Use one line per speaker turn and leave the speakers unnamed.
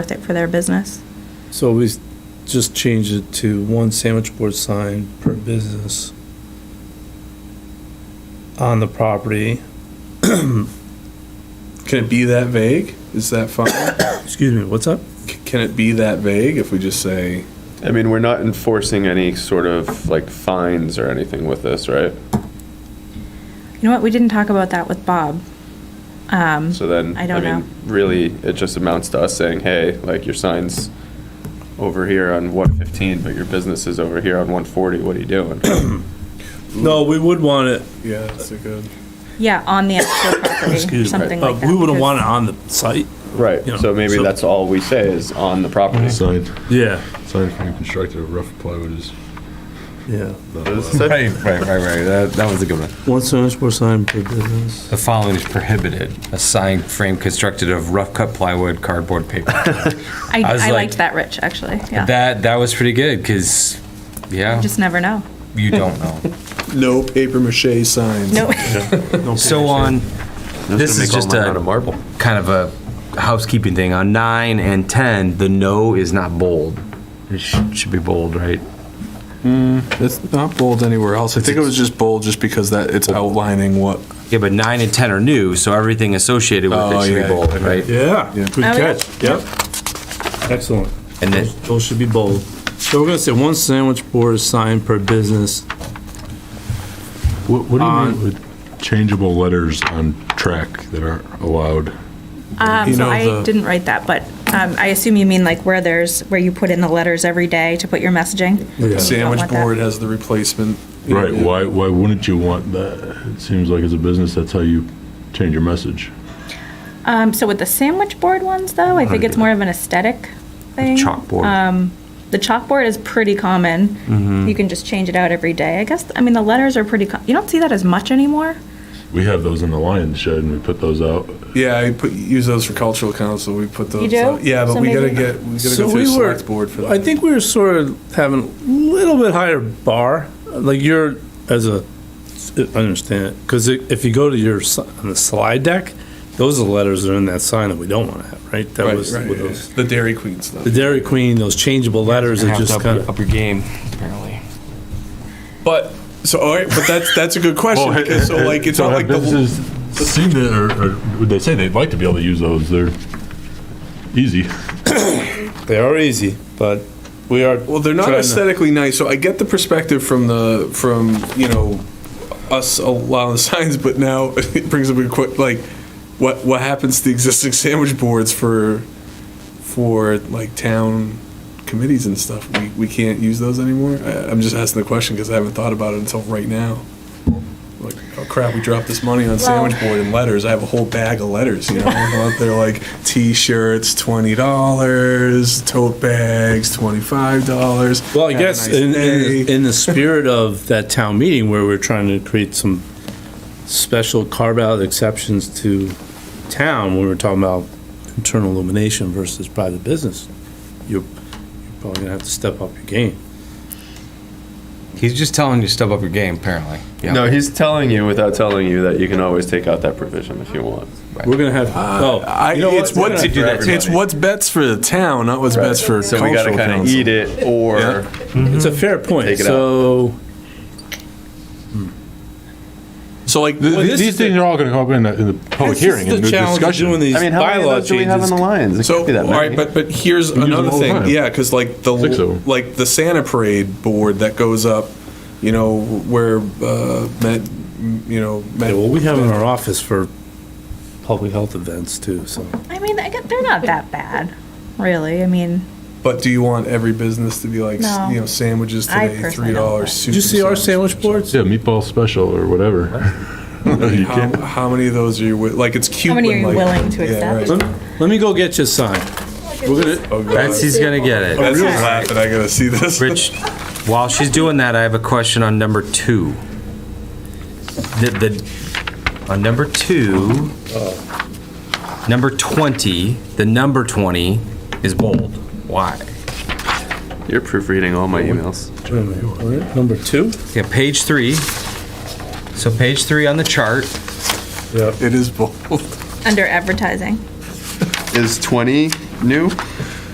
worth it for their business.
So we s- just changed it to one sandwich board sign per business on the property.
Can it be that vague? Is that fine?
Excuse me, what's up?
C- Can it be that vague if we just say,
I mean, we're not enforcing any sort of like fines or anything with this, right?
You know what? We didn't talk about that with Bob. Um,
So then,
I don't know.
mean, really, it just amounts to us saying, hey, like your sign's over here on one fifteen, but your business is over here on one forty, what are you doing?
No, we would want it,
yeah, that's a good.
yeah, on the actual property,
excuse me,
something like
but
that.
we wouldn't
because-
want it on the site.
Right,
Yeah.
so maybe
So-
that's all we say is on the property. So
Side,
Yeah,
side frame constructed of rough plywood is
yeah.
it's
not allowed.
such-
Right, right, right, right. That, that was a good one.
One sandwich board sign per business.
The following is prohibited. A sign frame constructed of rough cut plywood, cardboard, paper.
I,
I was
I
like-
liked that, Rich, actually. Yeah.
That, that was pretty good because, yeah,
Just never know.
you don't know.
No paper mache signs.
No.
So on, this is just
Out of
a
marble.
kind of a housekeeping thing. On nine and 10, the no is not bold. It sh- should be bold, right?
It's not bold anywhere else. I think it was just bold just because that it's outlining what.
Yeah, but nine and 10 are new, so everything associated with
Oh,
it should
yeah,
be bold,
okay.
right?
Yeah, good
yeah.
catch, yep. Excellent.
And then,
Those should be bold. So we're gonna say one sandwich board sign per business.
What, what do you
On-
mean with changeable letters on track that aren't allowed?
Um,
You
so
know,
I
the-
didn't write that, but um, I assume you mean like where there's, where you put in the letters every day to put your messaging?
Sandwich
want that.
board has the replacement. you
Right,
know,
why, why wouldn't you want that? It seems like as a business, that's how you change your message.
Um, so with the sandwich board ones though, I think it's more of an aesthetic thing.
chalkboard.
Um, the chalkboard is pretty common. You can just change it out every day. I guess, I mean, the letters are pretty, co- you don't see that as much anymore.
We have those in the lion's shed and we put those out.
Yeah, I put, use those for cultural council. We put those.
do?
out. Yeah, but
So
we gotta
maybe-
get, we gotta
So
go through
we were-
select board for
I
that.
think we were sort of having a little bit higher bar, like you're, as a, I understand it, because if you go to your, si- on the slide deck, those are the letters that are in that sign that we don't want to have, right? That
Right,
was
right,
with
yeah.
those,
The Dairy Queen stuff.
the Dairy Queen, those changeable letters are just kind of,
your game, apparently.
But, so, all right, but that's, that's a good question. because So like, it's
So
not like
have
the.
Businesses seem to, or, or would they say they'd like to be able to use those, they're easy.
they are easy, but we are.
Well, they're not
trying to-
aesthetically nice, so I get the perspective from the from you know us a lot of the signs, but now it brings up a quick like what what happens to the existing sandwich boards for for like town committees and stuff? We we can't use those anymore. I, I'm just asking the question because I haven't thought about it until right now. Like, oh crap, we dropped this money on sandwich board and letters. I have a whole bag of letters, you know. I'm out there like t-shirts, twenty dollars, tote bags, twenty-five dollars.
Well, I guess in, in, in the spirit of that town meeting where we're trying to create some special carve-out exceptions to town, when we're talking about internal illumination versus private business, you're you're probably gonna have to step up your game.
He's just telling you to step up your game, apparently. Yeah.
No, he's telling you without telling you that you can always take out that provision if you want.
We're gonna have, oh,
I,
you know
it's
what?
what's,
do that to
it's
everybody.
what's best for the town, not what's best for
So we gotta
cultural
kinda
council.
eat it or.
Yeah.
It's a fair point,
Take it out.
so,
So like
Th-
Well,
th-
this
These
is the-
things are all gonna come up in the, in the
this
public
is
hearing,
the
in the
challenge of doing
discussion.
these
I mean, how many of
bylaw
those do we have on
changes.
the Lions? It
So,
can't be that
all right,
many.
but, but here's
use them
another
all the
thing,
time.
yeah, because like the,
Six of 'em.
like the Santa Parade board that goes up, you know, where, uh, Met, you know.
Yeah,
Met-
well, we have in our office for public health events too, so.
I mean, I get, they're not that bad, really. I mean,
But do you want every business to be like,
No.
you know, sandwiches
I
today,
personally
three
don't like-
dollars?
Did you see our sandwich boards?
Yeah, meatball special or whatever. You
How,
can't,
how many of those are you, wi- like, it's cute.
many
when,
are you
like-
willing to
yeah,
accept?
right.
Let me- let me go get you a sign. We're gonna,
Oh, God.
Betsy's gonna get it.
Betsy's laughing, I gotta see this.
Rich, while she's doing that, I have a question on number two. The, the, on number two, number 20, the number 20 is bold. Why?
You're proofreading all my emails.
wait a minute, we're at number two?
Yeah, page three. So page three on the chart,
It is bold.
under advertising.
Is 20 new?